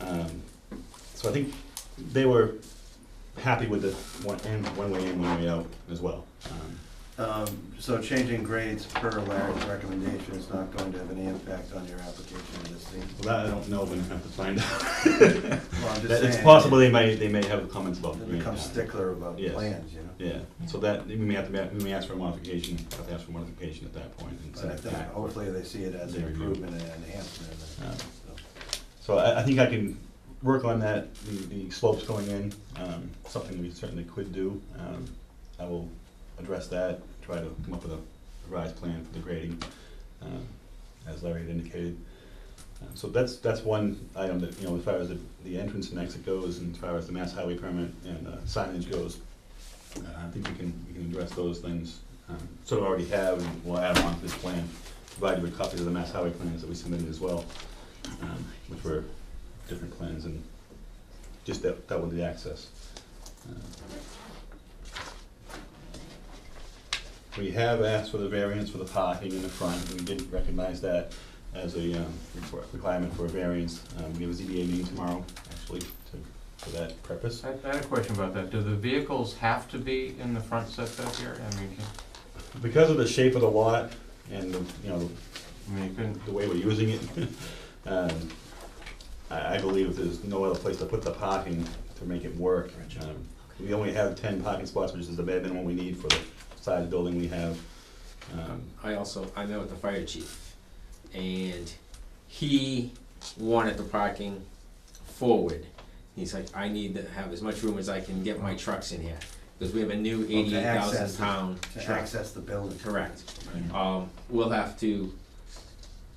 Um, So I think they were happy with the one, in, one way in, one way out as well. Um, Um, So changing grades per Larry's recommendation is not going to have any impact on your application in this thing? Well, that I don't know, we're gonna have to find out. Well, I'm just That- It's saying, possible they may, they may have comments about. They the green become path. stickler about Yes. plans, you know? Yeah, so that, we may have to, ma- we may ask for a modification, have to ask for modification at that point and But send I it think back. hopefully they see it as an improvement and enhancement. Uh, so. So I, I think I can work on that, the, the slopes going in, um, something we certainly could do. Um, I will address that, try to come up with a revised plan for the grading, um, as Larry had indicated. Uh, So that's, that's one item that, you know, as far as the, the entrance and exit goes, and as far as the mass highway permit and uh, signage goes, uh, I think we can, we can address those things, um, sort of already have, and we'll add on to this plan, provided with copies of the mass highway plans that we submitted as well um, which were different plans and just that, that with the access. Uh, We have asked for the variance for the parking in the front, and we didn't recognize that as a, um, requir- requirement for a variance. Um, we have a ZBA meeting tomorrow, actually, to, for that purpose. I I had a question about that. Do the vehicles have to be in the front setback here? I mean, can- Because of the shape of the lot and, the you know, I mean, you couldn't, the way we're using it. Um, I, I believe if there's no other place to put the parking to make it work. um, We only have ten parking spots, which is the bare minimum we need for the size building we have. Um, I also, I met with the fire chief, and he wanted the parking forward. He's like, I need to have as much room as I can get my trucks in here, because we have a new Well, to eighty-eight access thousand it. pound To truck. access the building. Correct. Mm-hmm. Um, we'll have to,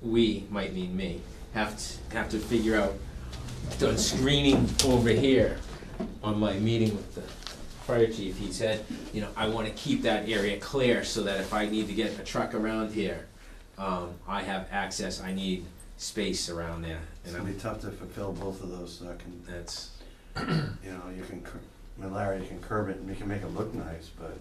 we, might mean me, have to, have to figure out, done screening over here. On my meeting with the fire chief, he said, you know, I wanna keep that area clear so that if I need to get a truck around here, um, I have access, I need space around there, It's and gonna be I'm, tough to fulfill both of those, uh, con- that's, you know, you can, cur- I mean, Larry, you can curb it and you can make it look nice, but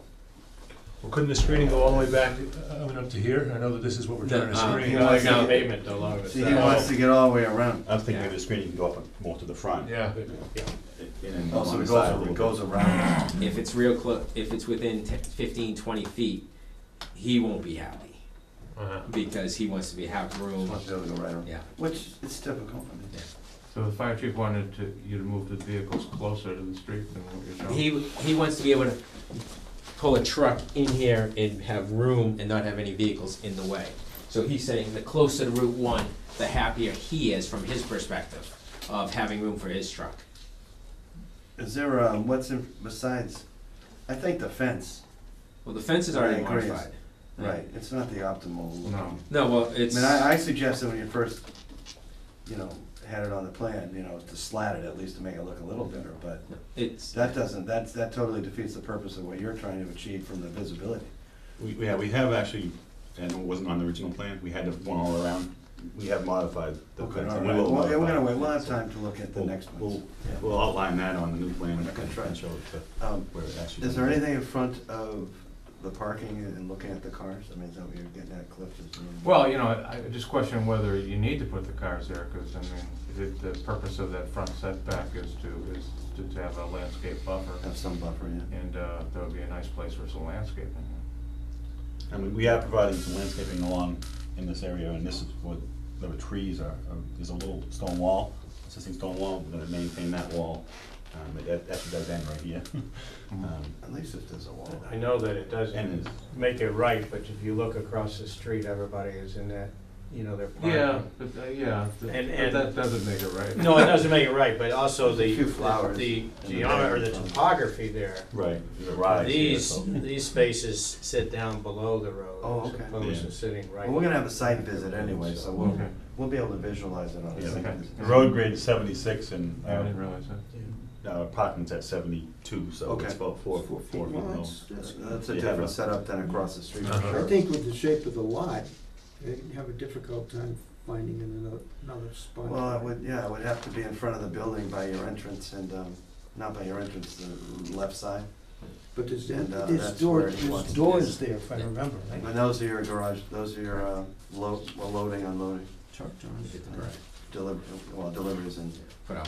Well, couldn't the screening go all the way back, uh, I mean, up to here? I know that this is what we're trying to The, uh, screen. No, it's not pavement along see, he wants to get all the way around. I was thinking maybe the screening can go up more to the front. Yeah. in and along Also, Oh, the side a it goes, little it bit. goes around. if it's real close, if it's within 10 fifteen, twenty feet, he won't be happy, Uh-huh. because he wants to be, have room, Wants to be able to go right around. yeah. Which is typical. I mean, so the fire chief wanted to, you to move the vehicles closer to the street than what you're showing? He, he wants to be able to pull a truck in here and have room and not have any vehicles in the way. So he's saying the closer to Route One, the happier he is from his perspective of having room for his truck. Is there, um, what's in, besides, I think the fence, Well, the fence is already I agree. modified. right, it's not the optimal. look. No. No, well, I it's, mean, I, I suggested when you first, you know, had it on the plan, you know, to slat it at least to make it look a little better, but it's, that doesn't, that's, that totally defeats the purpose of what you're trying to achieve from the visibility. We, yeah, we have actually, and it wasn't on the original plan, we had to one all around. We have modified the Okay, fence. all and we right, will well, yeah, we're modify gonna it. wait, we'll have time to look at the We'll- next We'll, one. Yeah. we'll outline that on the new plan and Okay. try and show it to Um, where it actually. Is there anything in front of the parking and looking at the cars? I mean, is that what you're getting at, Cliff? Is there- Well, you know, I I just question whether you need to put the cars there, because I mean, the, the purpose of that front setback is to, is to- to have a landscape buffer. Have some buffer, yeah. And uh, that would be a nice place for some landscaping. I mean, we are providing some landscaping along in this area, and this is what, the trees are, are- there's a little stone wall, existing stone wall, we're gonna maintain that wall. Um, it- that, actually does end right here. Um, At least if there's a wall. I know that it And doesn't it's- make it right, but if you look across the street, everybody is in that, you know, they're parking. Yeah, but, uh, yeah, th- And- but that and- doesn't make it right. No, it doesn't make it right, but also the, Few flowers the in the geometry, or the background. topography there. Right, there's a rise here, These, so. these spaces sit down below the Oh, road as okay. opposed Yeah. to sitting right. Well, we're gonna have a site visit anyway, so we'll, Okay. we'll be able to visualize it on a Yeah, site okay. visit. The road grade is seventy-six and, I didn't uh, realize that. uh, parking's at seventy-two, so Okay. it's about four, four, four feet low. That's that's a You have different a- setup than across the street. Uh-huh. I think with the shape of the lot, they'd have a difficult time finding another, another spot. Well, it would, yeah, it would have to be in front of the building by your entrance and, um, not by your entrance, the left side. But there's, and, uh, there's that's where doors, he wants there's it. doors there, if I remember, right? And those are your garage, those are your, uh, load, well, loading, unloading, Truck, John, get the deliver, well, deliveries and Put out